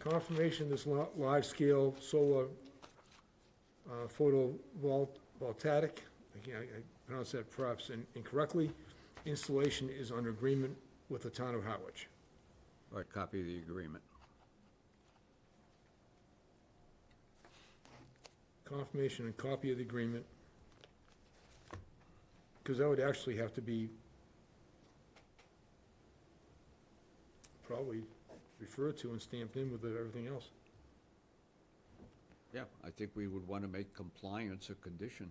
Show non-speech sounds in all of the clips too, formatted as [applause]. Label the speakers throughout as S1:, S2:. S1: confirmation this lo- large-scale solar uh, photovoltaic, I can't- I pronounce that perhaps in- incorrectly, installation is under agreement with the town of Harwich.
S2: Or a copy of the agreement.
S1: Confirmation and copy of the agreement. Because that would actually have to be probably referred to and stamped in with everything else.
S2: Yeah, I think we would want to make compliance a condition,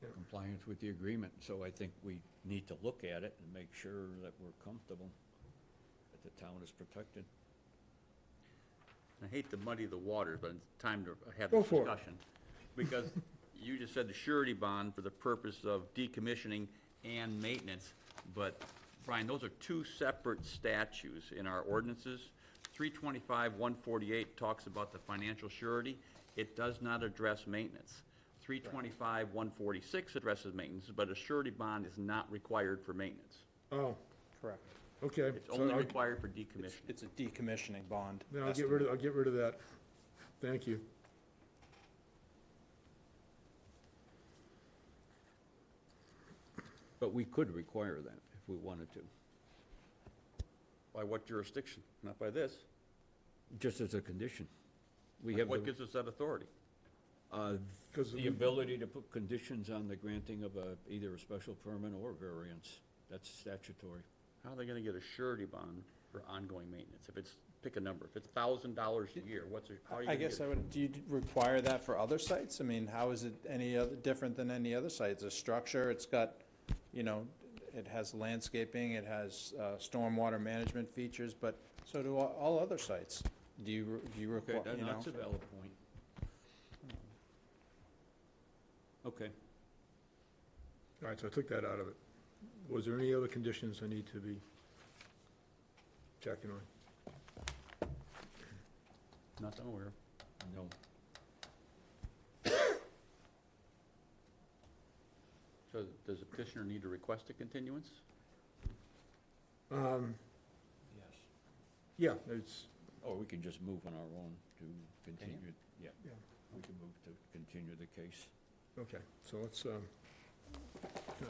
S1: Yeah.
S2: compliance with the agreement. So I think we need to look at it and make sure that we're comfortable, that the town is protected.
S3: I hate to muddy the waters, but it's time to have
S1: Go
S3: this
S1: for it.
S3: discussion. Because you just said the surety bond for the purpose of decommissioning and maintenance, but Brian, those are two separate statutes in our ordinances. Three twenty-five, one forty-eight talks about the financial surety. It does not address maintenance. Three twenty-five, one forty-six addresses maintenance, but a surety bond is not required for maintenance.
S1: Oh,
S4: Correct.
S1: okay.
S3: It's
S1: so
S3: only
S1: I'll-
S3: required for decommissioning.
S4: It's a decommissioning bond.
S1: Then I'll get rid of, I'll get rid of that. Thank you.
S2: But we could require that if we wanted to,
S3: By what jurisdiction? Not by this.
S2: just as a condition. We have
S3: What
S2: the,
S3: gives us that authority?
S2: uh,
S1: Because
S2: the ability to put conditions on the granting of a, either a special permit or variance. That's statutory.
S3: How are they gonna get a surety bond for ongoing maintenance? If it's, pick a number, if it's thousand dollars a year, what's, it- how are you
S4: I
S3: gonna
S4: guess
S3: get
S4: I
S3: it?
S4: would, do you require that for other sites? I mean, how is it any other, different than any other site? It's a structure, it's got, you know, it has landscaping, it has uh, stormwater management features, but so do all- all other sites. Do you, re- do you
S2: Okay,
S4: require,
S2: that-
S4: you know?
S2: that's a valid point. Okay,
S1: All right, so I took that out of it. Was there any other conditions I need to be checking on?
S3: Not nowhere.
S2: no,
S3: So does the petitioner need to request a continuance?
S1: Um,
S2: yes.
S1: yeah, it's,
S2: Or we can just move on our own to
S3: Can you?
S2: continue, yeah,
S1: Yeah.
S2: we can move to continue the case.
S1: okay, so let's, um,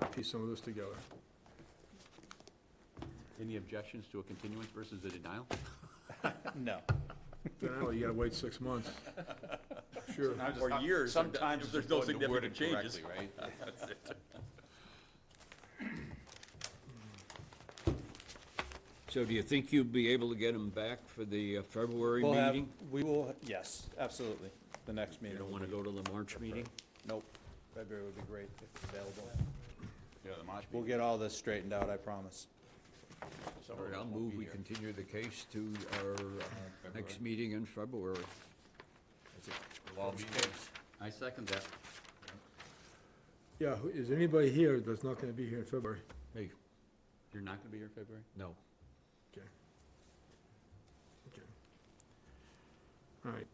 S1: uh, piece some of this together.
S3: Any objections to a continuance versus a denial?
S4: No.
S1: Now, you gotta wait six months. Sure.
S3: Or years,
S5: Sometimes
S3: if there's no
S5: it's important to
S3: significant
S5: word it
S3: changes.
S5: correctly,
S3: [laughs]
S5: right?
S2: So do you think you'd be able to get them back for the uh, February
S4: We'll have,
S2: meeting?
S4: we will, yes, absolutely, the next
S2: You
S4: meeting.
S2: don't want to go to the March meeting?
S4: Nope, February would be great if available.
S5: Yeah, the March
S4: We'll get all this straightened out, I promise.
S2: All right, I'll move, we continue the case to our uh, next meeting in February.
S3: I second that.
S1: Yeah, who- is anybody here that's not gonna be here in February?
S2: Hey,
S3: You're not gonna be here in February?
S2: no,
S1: Okay. Okay. All right,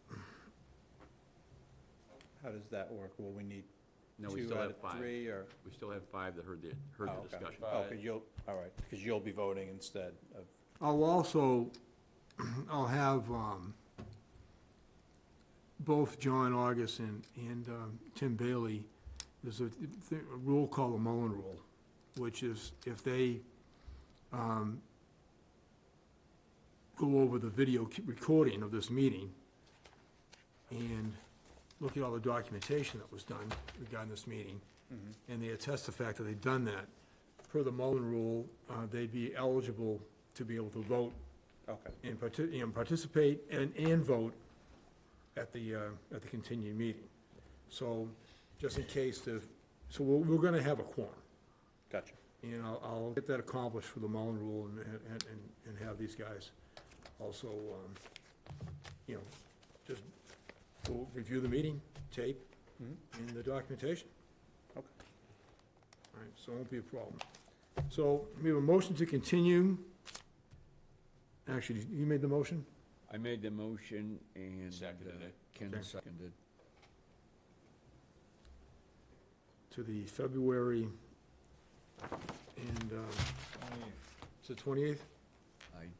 S4: How does that work? Will we need
S3: No, we
S4: two
S3: still
S4: out
S3: have
S4: of
S3: five.
S4: uh, three, or?
S3: We still have five that heard the, heard the
S4: Oh, okay.
S3: discussion.
S4: Oh, 'cause you'll, all right, because you'll be voting instead of,
S1: I'll also, [clears throat] I'll have, um, both John August and, and, um, Tim Bailey, there's a, th- a rule called the Mullen Rule, which is if they, um, go over the video c- recording of this meeting and look at all the documentation that was done regarding this meeting, and they attest the fact that they've done that, per the Mullen Rule, uh, they'd be eligible to be able to vote
S4: okay,
S1: and parti- and participate and, and vote at the, uh, at the continued meeting. So, just in case the, so we're, we're gonna have a quorum,
S4: gotcha.
S1: and I'll, I'll get that accomplished for the Mullen Rule and, and, and- and have these guys also, um, you know, just go review the meeting, tape,
S4: Mhm.
S1: and the documentation.
S4: Okay.
S1: All right, so it won't be a problem. So we have a motion to continue. Actually, you made the motion?
S2: I made the motion and
S5: Seconded
S2: uh,
S5: it.
S2: Ken
S1: Okay.
S2: seconded.
S1: to the February and, uh, it's the 28th?
S2: I